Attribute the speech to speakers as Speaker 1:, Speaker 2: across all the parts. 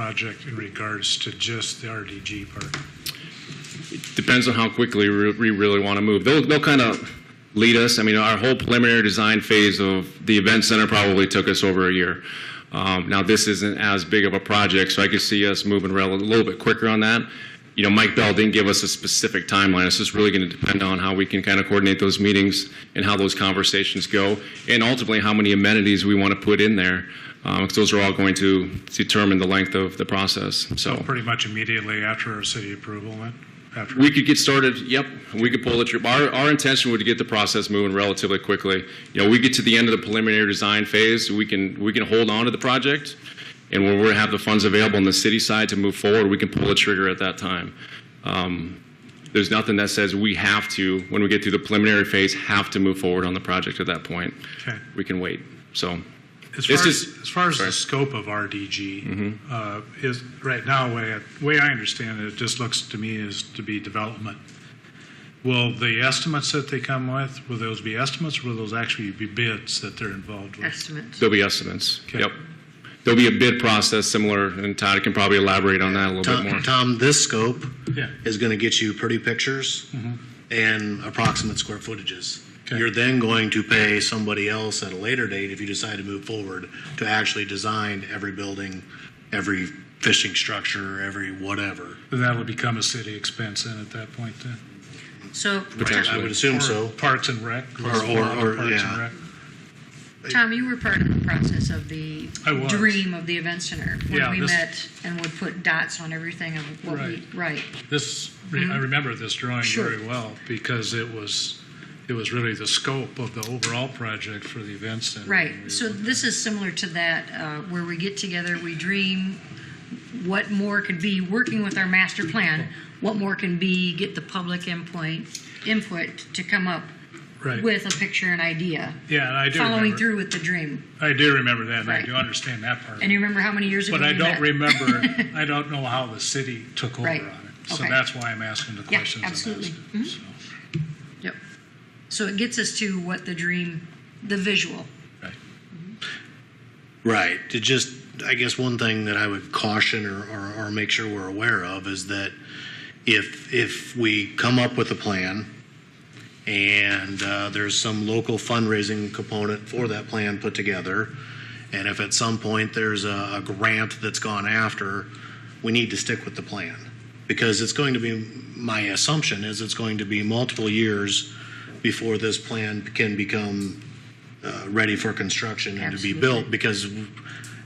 Speaker 1: project in regards to just the RDG part?
Speaker 2: Depends on how quickly we we really want to move. They'll, they'll kind of lead us. I mean, our whole preliminary design phase of the event center probably took us over a year. Um, now, this isn't as big of a project, so I could see us moving rel- a little bit quicker on that. You know, Mike Bell didn't give us a specific timeline. It's just really going to depend on how we can kind of coordinate those meetings and how those conversations go, and ultimately how many amenities we want to put in there, because those are all going to determine the length of the process. So.
Speaker 1: Pretty much immediately after our city approval went? After,
Speaker 2: We could get started, yep, we could pull the trip. Our, our intention would to get the process moving relatively quickly. You know, we get to the end of the preliminary design phase, we can, we can hold on to the project, and when we have the funds available on the city side to move forward, we can pull the trigger at that time. Um, There's nothing that says we have to, when we get through the preliminary phase, have to move forward on the project at that point.
Speaker 1: okay.
Speaker 2: We can wait, so.
Speaker 1: As
Speaker 2: This
Speaker 1: far as,
Speaker 2: is-
Speaker 1: as far as
Speaker 2: sorry. Mm-hmm.
Speaker 1: the scope of RDG, uh, is, right now, way, I- way I understand it, it just looks to me as to be development. Will the estimates that they come with, will those be estimates, or will those actually be bids that they're involved with?
Speaker 3: estimates.
Speaker 2: There'll be estimates,
Speaker 1: Okay.
Speaker 2: yep. There'll be a bid process similar, and Todd can probably elaborate on that a little bit more.
Speaker 4: Tom, Tom, this scope
Speaker 1: Yeah.
Speaker 4: is going to get you pretty pictures and approximate square footages.
Speaker 1: Okay.
Speaker 4: You're then going to pay somebody else at a later date, if you decide to move forward, to actually design every building, every fishing structure, every whatever.
Speaker 1: Then that'll become a city expense then at that point then?
Speaker 3: So,
Speaker 4: I would assume
Speaker 1: Or
Speaker 4: so.
Speaker 1: Parks and Rec?
Speaker 4: Or-
Speaker 1: was
Speaker 4: or-
Speaker 1: involved in
Speaker 4: or,
Speaker 1: Parks and
Speaker 4: yeah.
Speaker 1: Rec?
Speaker 3: Tom, you were part of the process of the
Speaker 1: I was.
Speaker 3: dream of the event center. When
Speaker 1: Yeah,
Speaker 3: we
Speaker 1: this-
Speaker 3: met and would put dots on everything of what
Speaker 1: Right.
Speaker 3: we right.
Speaker 1: This, re- I remember this drawing
Speaker 3: Mm-hmm. Sure.
Speaker 1: very well, because it was, it was really the scope of the overall project for the event center.
Speaker 3: Right. So this is similar to that, uh, where we get together, we dream what more could be, working with our master plan, what more can be, get the public input, input to come up
Speaker 1: Right.
Speaker 3: with a picture and idea,
Speaker 1: Yeah, and I do
Speaker 3: following
Speaker 1: remember,
Speaker 3: through with the dream.
Speaker 1: I do remember that, and I
Speaker 3: Right.
Speaker 1: do understand that part.
Speaker 3: And you remember how many years ago
Speaker 1: But I
Speaker 3: we
Speaker 1: don't
Speaker 3: met?
Speaker 1: remember, I don't know how the city took over on
Speaker 3: Right.
Speaker 1: it. So
Speaker 3: Okay.
Speaker 1: that's why I'm asking the
Speaker 3: Yeah,
Speaker 1: questions I'm
Speaker 3: absolutely.
Speaker 1: asking.
Speaker 3: Mhm. Yep. So it gets us to what the dream, the visual.
Speaker 4: Right. To just, I guess one thing that I would caution or, or, or make sure we're aware of is that if if we come up with a plan and uh, there's some local fundraising component for that plan put together, and if at some point there's a, a grant that's gone after, we need to stick with the plan because it's going to be my assumption is it's going to be multiple years before this plan can become uh, ready for construction and to be
Speaker 3: Absolutely.
Speaker 4: built because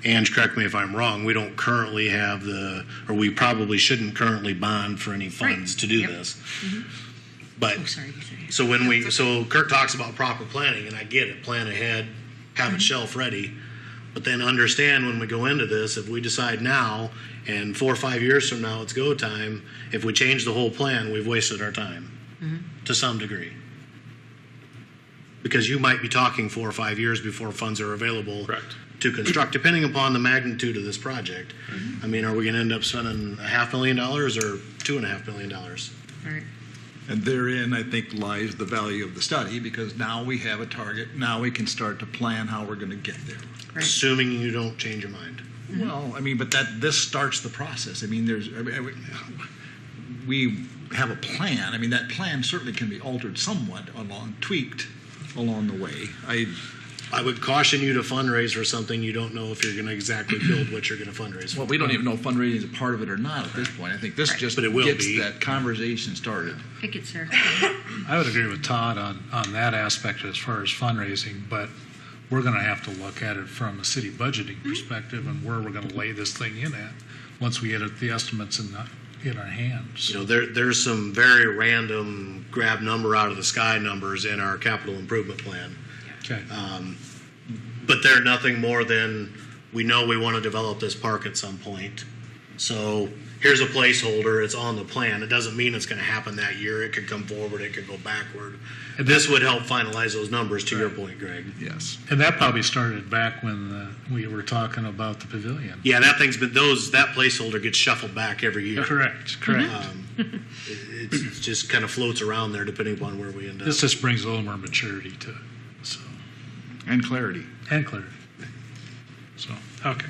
Speaker 4: Ange, correct me if I'm wrong, we don't currently have the, or we probably shouldn't currently bond for any funds to do
Speaker 3: Yep.
Speaker 4: this. But,
Speaker 3: Oh, sorry. you say.
Speaker 4: so when we, so Kurt talks about proper planning, and I get it, plan ahead, have it shelf ready. But then understand when we go into this, if we decide now, and four or five years from now, it's go time, if we change the whole plan, we've wasted our time to some degree. Because you might be talking four or five years before funds are available.
Speaker 2: Correct.
Speaker 4: To construct, depending upon the magnitude of this project. I mean, are we gonna end up spending a half million dollars or two and a half million dollars?
Speaker 3: All right.
Speaker 5: And therein, I think, lies the value of the study, because now we have a target, now we can start to plan how we're gonna get there.
Speaker 3: Right.
Speaker 4: Assuming you don't change your mind.
Speaker 5: Well, I mean, but that, this starts the process, I mean, there's, I mean, I mean, we have a plan, I mean, that plan certainly can be altered somewhat along, tweaked along the way. I,
Speaker 4: I would caution you to fundraise for something you don't know if you're going to exactly build what you're going to fundraise for.
Speaker 5: well, we don't even know if fundraising is a part of it or not at this point, I think this just
Speaker 4: But it will
Speaker 5: gets
Speaker 4: be.
Speaker 5: that conversation started.
Speaker 3: It gets there.
Speaker 1: I would agree with Todd on, on that aspect as far as fundraising, but we're going to have to look at it from a city budgeting perspective and where we're going to lay this thing in at, once we get it- the estimates in, the- in our hands.
Speaker 4: You know, there, there's some very random grab number out of the sky numbers in our capital improvement plan,
Speaker 1: Okay,
Speaker 4: but they're nothing more than we know we want to develop this park at some point. So here's a placeholder. It's on the plan. It doesn't mean it's going to happen that year. It could come forward. It could go backward.
Speaker 1: And
Speaker 4: this would help finalize those numbers. To your point, Greg.
Speaker 5: Yes.
Speaker 1: and that probably started back when uh, we were talking about the pavilion.
Speaker 4: Yeah, that thing's been those. That placeholder gets shuffled back every year.
Speaker 1: Correct, correct.
Speaker 4: It's- It just kind of floats around there depending upon where we end up.
Speaker 1: This just brings a little more maturity to it, so,
Speaker 5: And clarity.
Speaker 1: and clarity. So, okay.